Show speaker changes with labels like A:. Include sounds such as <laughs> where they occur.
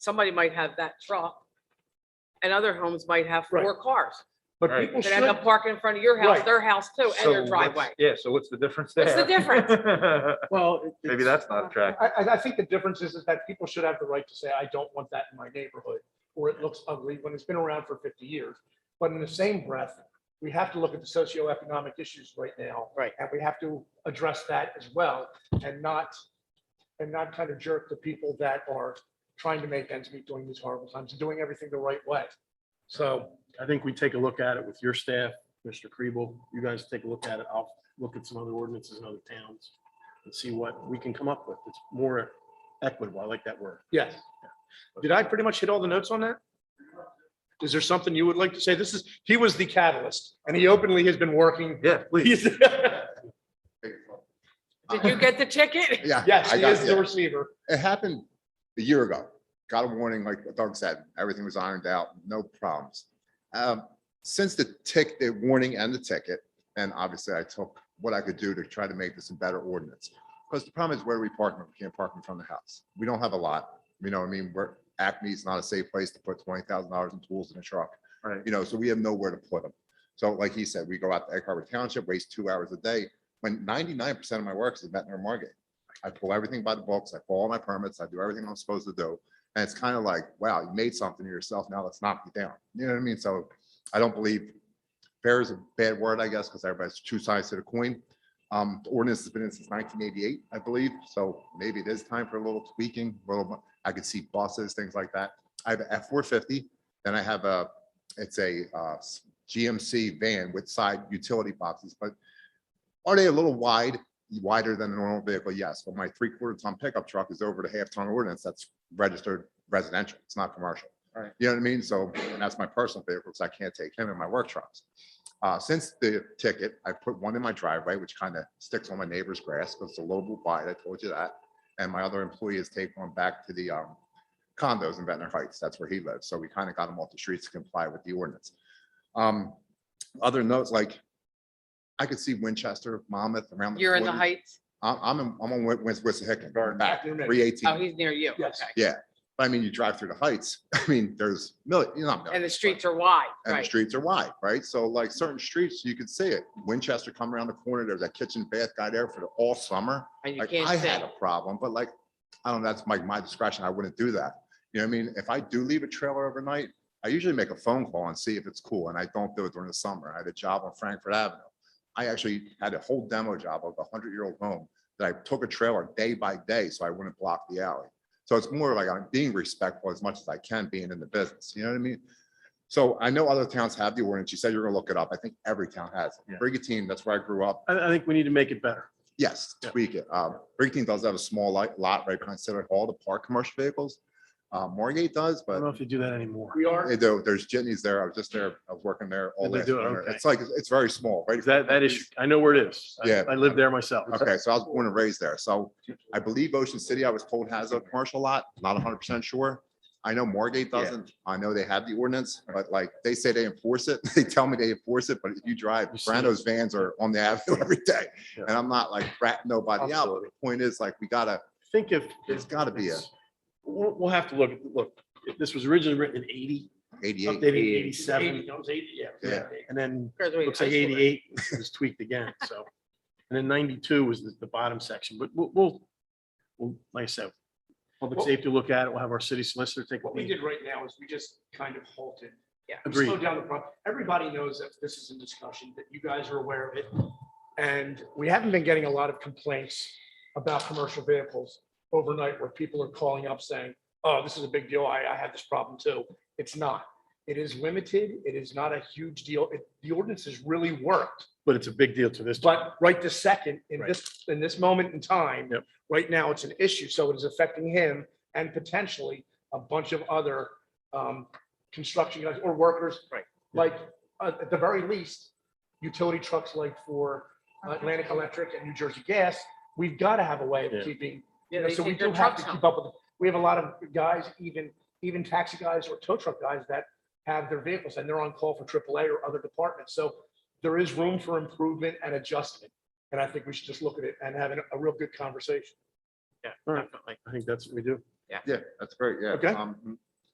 A: somebody might have that truck and other homes might have four cars
B: But
C: Right.
B: people
A: that end
B: should.
A: up parking in front of your house,
B: Right.
A: their house too,
C: So
A: and their
C: what's-
A: driveway.
C: Yeah, so what's the difference there?
A: What's the difference?
B: <laughs> Well. it-
C: <laughs> Maybe
B: it's-
C: that's not attractive.
B: I, I, I think the difference is, is that people should have the right to say, I don't want that in my neighborhood, or it looks ugly, when it's been around for fifty years. But in the same breath, we have to look at the socioeconomic issues right now.
A: Right.
B: And we have to address that as well, and not, and not kind of jerk the people that are trying to make ends meet during these horrible times, and doing everything the right way. So,
D: I think we take a look at it with your staff, Mr. Kriebel, you guys take a look at it. I'll look at some other ordinances in other towns and see what we can come up with. It's more equitable. I like that word.
B: yes. Did I pretty much hit all the notes on that? Is there something you would like to say? This is, he was the catalyst, and he openly has been working <laughs>
C: Yeah, please.
B: He's-
A: Did you get the
E: <laughs>
A: ticket?
E: Yeah.
B: Yes,
E: I
B: he
E: got-
B: is the
E: yeah.
B: receiver.
E: It happened a year ago. Got a warning, like Doug said, everything was ironed out, no problems. Um, Since the tick, the warning and the ticket, and obviously I took what I could do to try to make this a better ordinance. Because the problem is where we park, we can't park in front of the house. We don't have a lot. You know, what I mean, we're, Acme's not a safe place to put twenty thousand dollars in tools in a truck.
C: Right.
E: You know, so we have nowhere to put them. So like he said, we go out to Egg Harbor Township, waste two hours a day, when ninety-nine percent of my work is in Ventnor and Margate. I pull everything by the books, I pull all my permits, I do everything I'm supposed to do. And it's kind of like, wow, you made something of yourself, now let's knock you down. You know what I mean? So I don't believe fair is a bad word, I guess, because everybody's two sides to the coin. Um, the ordinance has been in since nineteen eighty-eight, I believe, so maybe it is time for a little tweaking, a little, mo- I could see buses, things like that. I have a F four fifty, then I have a, it's a uh, s- GMC van with side utility boxes, but are they a little wide? wider than a normal vehicle, yes, but my three-quarter ton pickup truck is over the half-ton ordinance, that's registered residential, it's not commercial.
C: Right.
E: You know what I mean? So, and that's my personal vehicle, so I can't take him in my work trucks. Uh, since the ticket, I put one in my driveway, which kind of sticks on my neighbor's grass, because it's a little bit wide, I told you that. And my other employee has taken one back to the, um, condos in Ventnor Heights, that's where he lives, so we kind of got him off the streets to comply with the ordinance. Um, other notes, like, I could see Winchester, Monmouth, around.
A: You're in the
E: corner.
A: heights.
E: I'm, I'm, in- I'm on Wissahickon, going back,
B: After midnight.
E: three
A: Oh,
E: eighteen.
A: he's near you. Okay.
B: Yes.
E: I mean, you drive through the heights, <laughs> I mean, there's, no, you know. not
A: And the
E: millions, but-
A: streets are wide,
E: And the
A: right?
E: streets are wide, right? So like certain streets, you could see it. Winchester come around the corner, there's that kitchen bath guy there for the all summer.
A: And you
E: Like, I
A: can't
E: had a
A: see.
E: problem, but like, I don't know, that's my, my discretion. I wouldn't do that. You know what I mean? If I do leave a trailer overnight, I usually make a phone call and see if it's cool, and I don't do it during the summer. I had a job on Frankfurt Avenue. I actually had a whole demo job of a hundred-year-old home that I took a trailer day by day, so I wouldn't block the alley. So it's more like I'm being respectful as much as I can being in the business, you know what I mean? So I know other towns have the ordinance. You said you're gonna look it up. I think every town has.
D: Yeah.
E: it. Brigantine, that's where I grew up.
D: I, I think we need to make it better.
E: Yes,
D: Yeah.
E: tweak it. Um, Brigantine does have a small li- lot right behind Center Hall to park commercial vehicles. Uh, Margate does,
D: I don't know
E: but
D: if you do that anymore.
B: We are,
E: they do. There's Jitney's there. I was just there. I was working there all
D: Did Oh. they
E: last
D: do it?
E: winter.
D: Okay.
E: It's like, it's very small, right?
D: Is That, that is, I know where it is. I-
E: Yeah.
D: I live there myself.
E: Okay, so I was born and raised there. So I believe Ocean City, I was told has a commercial lot, not hundred percent sure. I know Margate
C: Yeah.
E: doesn't. I know they have the ordinance, but like they say they enforce it. <laughs> They tell me they enforce it, but if you drive,
D: You see it.
E: Brando's vans are on the avenue <laughs> every day.
D: Yeah.
E: And I'm not like ratting nobody out. But
D: Absolutely.
E: the point is like, we gotta,
D: I think if.
E: there's gotta be a
D: it's- We'll, we'll have to look, look, if this was originally written in eighty,
E: eighty-eight.
D: updated in eighty-seven.
B: it was eighty, yeah.
E: Yeah.
D: And then
A: Graduated
D: looks like
A: high school there.
D: <laughs> eighty-eight was tweaked again, so. And then ninety-two was the, the bottom section, but we'll, we'll, we'll, like I said, public
B: Well-
D: safety look at it. We'll have our city solicitor take.
B: What we did right now is we just kind of halted.
A: Yeah.
B: We
D: Agreed.
B: slowed down the pro Everybody knows that this is in discussion, that you guys are aware of it. And we haven't been getting a lot of complaints about commercial vehicles overnight where people are calling up saying, oh, this is a big deal. I, I have this problem too. It's not. It is limited. It is not a huge deal. It- The ordinance has really worked.
D: But it's a big deal to this.
B: But right this second, in
D: Right.
B: this, in this moment in time.
D: Yep.
B: Right now, it's an issue, so it is affecting him and potentially a bunch of other um, construction guys or workers.
A: Right.
B: Like, uh, at the very least, utility trucks like for Atlantic Electric and New Jersey Gas, we've got to have a way
D: Yeah.
B: of keeping,
A: Yeah,
B: you know,
A: they
B: so we
A: take their
B: do have
A: trucks
B: to
A: home.
B: keep up with, we have a lot of guys, even, even taxi guys or tow truck guys that have their vehicles and they're on call for AAA or other departments. So there is room for improvement and adjustment. And I think we should just look at it and have an- a real good conversation.
D: All right, I think that's what we do.
B: Yeah, that's great, yeah.
E: Okay.
B: Um,